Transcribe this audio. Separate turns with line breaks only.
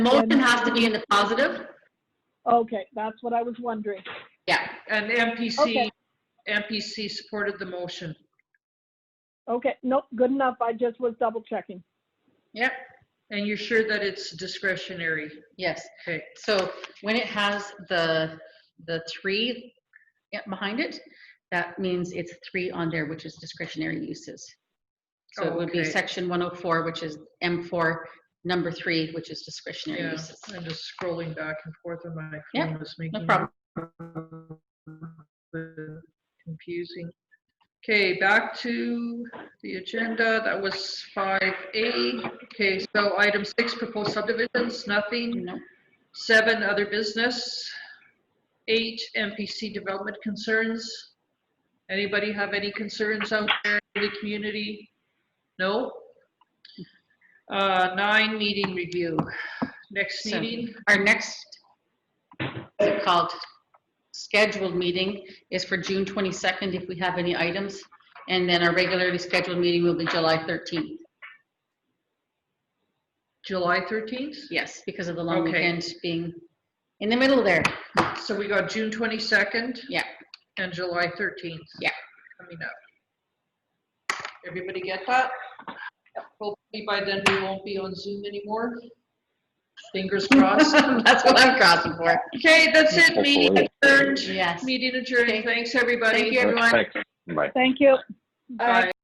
Motion has to be in the positive?
Okay, that's what I was wondering.
Yeah.
And MPC,
Okay.
MPC supported the motion.
Okay, nope, good enough. I just was double checking.
Yep. And you're sure that it's discretionary?
Yes.
Okay.
So when it has the, the three yeah, behind it, that means it's three on there, which is discretionary uses. So it would be
Okay.
section 104, which is M4, number three, which is discretionary
Yeah,
uses.
I'm just scrolling back and forth on my
Yeah,
phone. It's making
No
it
problem.
Confusing. Okay, back to the agenda. That was five A. Okay, so item six, proposed subdivisions, nothing.
No.
Seven, other business. Eight, MPC development concerns. Anybody have any concerns out there in the community? No? Uh, nine, meeting review. Next
So-
meeting,
Our next, it's called scheduled meeting is for June 22nd if we have any items. And then our regularly scheduled meeting will be July 13th.
July 13th?
Yes, because of the long
Okay.
weekend being in the middle there.
So we got June 22nd?
Yeah.
And July 13th?
Yeah.
Coming up. Everybody get that? Hopefully by then we won't be on Zoom anymore. Fingers crossed.
That's what I'm crossing for.
Okay, that's it, meeting adjourned,
Yes.
meeting adjourned, thanks, everybody.
Thank you, everyone.
Thanks. Bye.
Thank you.
Bye.